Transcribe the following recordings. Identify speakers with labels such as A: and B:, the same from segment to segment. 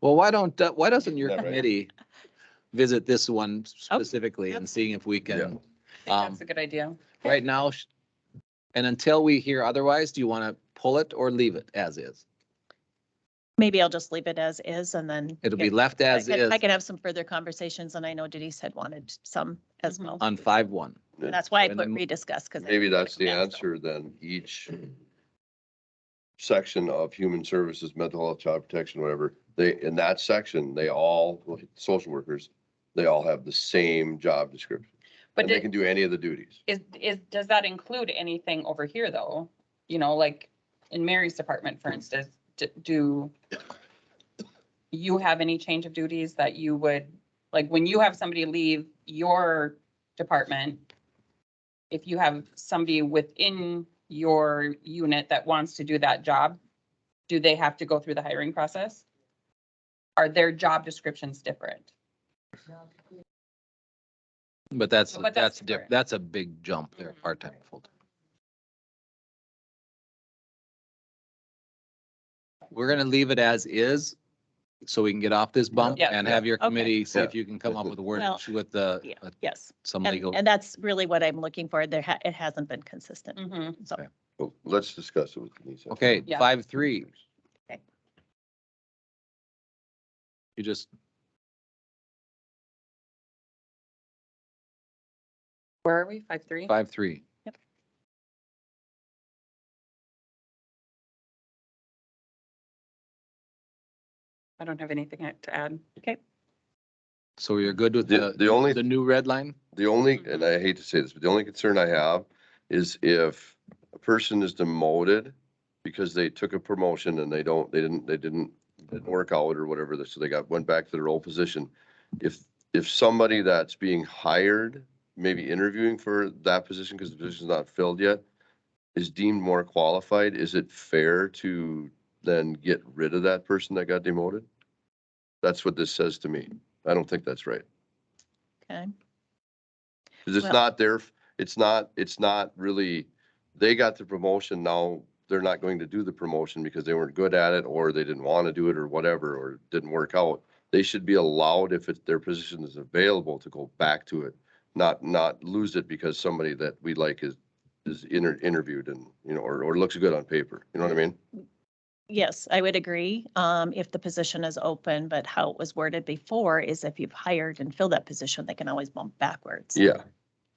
A: Well, why don't, uh, why doesn't your
B: Yeah, right.
A: committee visit this one
C: Oh,
A: specifically and seeing if we can,
D: I think
A: Um,
D: That's a good idea.
A: right now? sh- And until we hear otherwise, do you want to pull it or leave it as is?
C: Maybe I'll just leave it as is and then.
A: It'll be
C: get-
A: left
C: I
A: as
C: can-
A: is
C: I can have some further conversations and I know Denise had wanted some as
D: Mhm.
C: well.
A: on five one.
C: And That's why I
A: And
C: put
A: m-
C: rediscuss because.
B: Maybe that's the answer then, each section of human services, mental health, child protection, whatever, they, in that section, they all, social workers, they all have the same job description.
D: But
B: And they
D: did-
B: can do any of the duties.
D: is, is, does that include anything over here though? You know, like in Mary's department, for instance, d- do you have any change of duties that you would, like, when you have somebody leave your department? If you have somebody within your unit that wants to do that job, do they have to go through the hiring process? Are their job descriptions different?
A: But that's,
D: But that's
A: that's, diff-
D: different.
A: that's a big jump there,
C: Mm-hmm.
D: Mhm.
A: part-time, full-time. We're going to leave it as is, so we can get off this bump
D: Yeah.
A: and have your
C: Okay.
A: committee, see
B: Yeah.
A: if you can come up with a word
C: Well,
A: with the,
C: yeah.
A: with
C: Yes,
A: some
C: and,
A: legal.
C: and that's really what I'm looking for. There, ha- it hasn't been consistent.
D: Mhm.
C: So
A: Okay.
B: But Let's discuss it with Denise.
A: Okay,
D: Yeah.
A: five, three.
C: Okay.
A: You just,
D: Where are we? Five, three?
A: five, three.
C: Yep.
D: I don't have anything I- to add.
A: So you're good with
B: The,
A: the,
B: the only
A: the new red line?
B: The only, and I hate to say this, but the only concern I have is if a person is demoted because they took a promotion and they don't, they didn't, they didn't, didn't work out or whatever, so they got, went back to their old position. If, if somebody that's being hired, maybe interviewing for that position because the position's not filled yet, is deemed more qualified, is it fair to then get rid of that person that got demoted? That's what this says to me. I don't think that's right.
C: Okay.
B: Cause it's
C: Well-
B: not their, f- it's not, it's not really, they got the promotion, now they're not going to do the promotion because they weren't good at it, or they didn't want to do it, or whatever, or it didn't work out. They should be allowed, if it, their position is available, to go back to it, not, not lose it because somebody that we like is, is inter- interviewed and, you know, or, or looks good on paper, you know what I mean?
C: Yes, I would agree, um, if the position is open, but how it was worded before is if you've hired and filled that position, they can always bump backwards.
B: Yeah,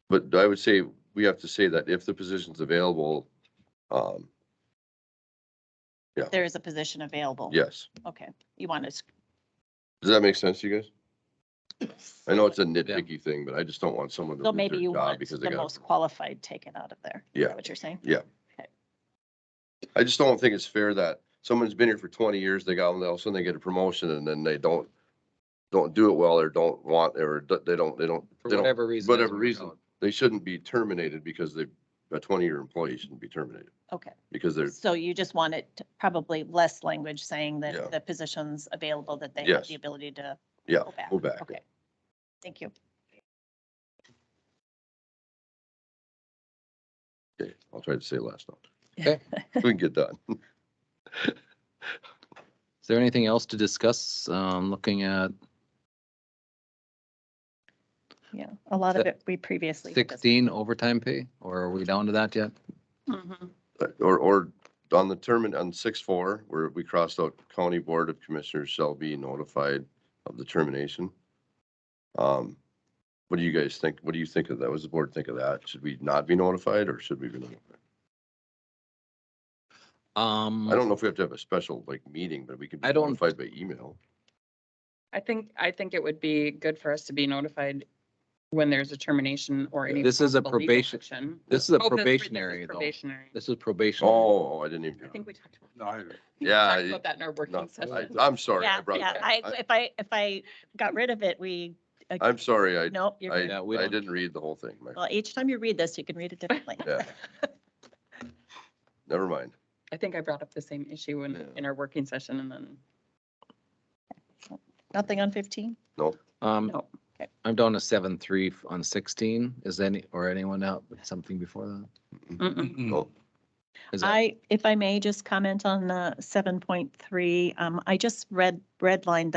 B: but I would say, we have to say that if the position's available, um,
C: There is a position available.
B: yes.
C: Okay, you want to,
B: Does that make sense to you guys? I know it's a nitpicky thing, but I just don't want someone to
C: so
B: lose
C: maybe
B: their
C: you
B: job
C: want
B: because they
C: the
B: got.
C: most qualified taken out of there. Is
B: Yeah.
C: that What you're saying?
B: I just don't think it's fair that someone's been here for twenty years, they got, all of a sudden they get a promotion and then they don't, don't do it well or don't want, or d- they don't, they don't,
A: For
B: they don't,
A: whatever reason.
B: whatever
A: doesn't work
B: reason.
A: out.
B: They shouldn't be terminated because they, a twenty-year employee shouldn't be terminated
C: Okay,
B: because they're,
C: so you just want it to- probably less language saying
B: Yeah.
C: that the position's available, that they have
B: Yes.
C: the ability to
B: yeah,
C: go back.
B: go back.
C: Okay. Thank you.
B: Okay, I'll try to say last now.
A: Okay.
B: We can get done.
A: Is there anything else to discuss? Um, looking at
C: Yeah, a lot of
A: Se-
C: it we previously. discussed.
A: sixteen overtime pay, or are we down to that yet?
B: But- Or, or on the term, on six four, where we crossed out county board of commissioners shall be notified of the termination. Um, What do you guys think? What do you think of that? What does the board think of that? Should we not be notified or should we be notified?
A: Um.
B: I don't know if we have to have a special like meeting, but we can be
A: I don't-
B: notified by email.
D: I think, I think it would be good for us to be notified when there's a termination or any.
A: This is a
D: possible legal
A: probation-
D: action.
A: This is a
D: Oh, this- this is
A: probationary though.
D: Probationary.
A: This is probation.
B: Oh, I didn't even.
D: I think we talked about.
E: No, I-
D: we
B: Yeah,
D: talked
B: I-
D: About that in our
B: no,
D: working
B: I-
D: session.
B: I'm sorry. I
C: Yeah,
B: brought
C: yeah,
B: that.
C: I,
B: I-
C: if I, if I got rid of it, we.
B: I'm sorry. I,
C: Nope, you're
B: I,
C: good.
A: Yeah, we
B: I
A: don't-
B: didn't read the whole thing. My-
C: Well, each time you read this, you can read it differently.
B: Yeah. Never mind.
D: I think I brought up the same issue in,
B: Yeah.
D: in our working session and then,
C: Nothing on fifteen?
A: Um,
D: no.
A: I'm down to seven, three on sixteen. Is any, or anyone out with something before that?
D: Mm-mm.
B: No.
A: Is that-
C: I, if I may just comment on, uh, seven point three, um, I just read, redlined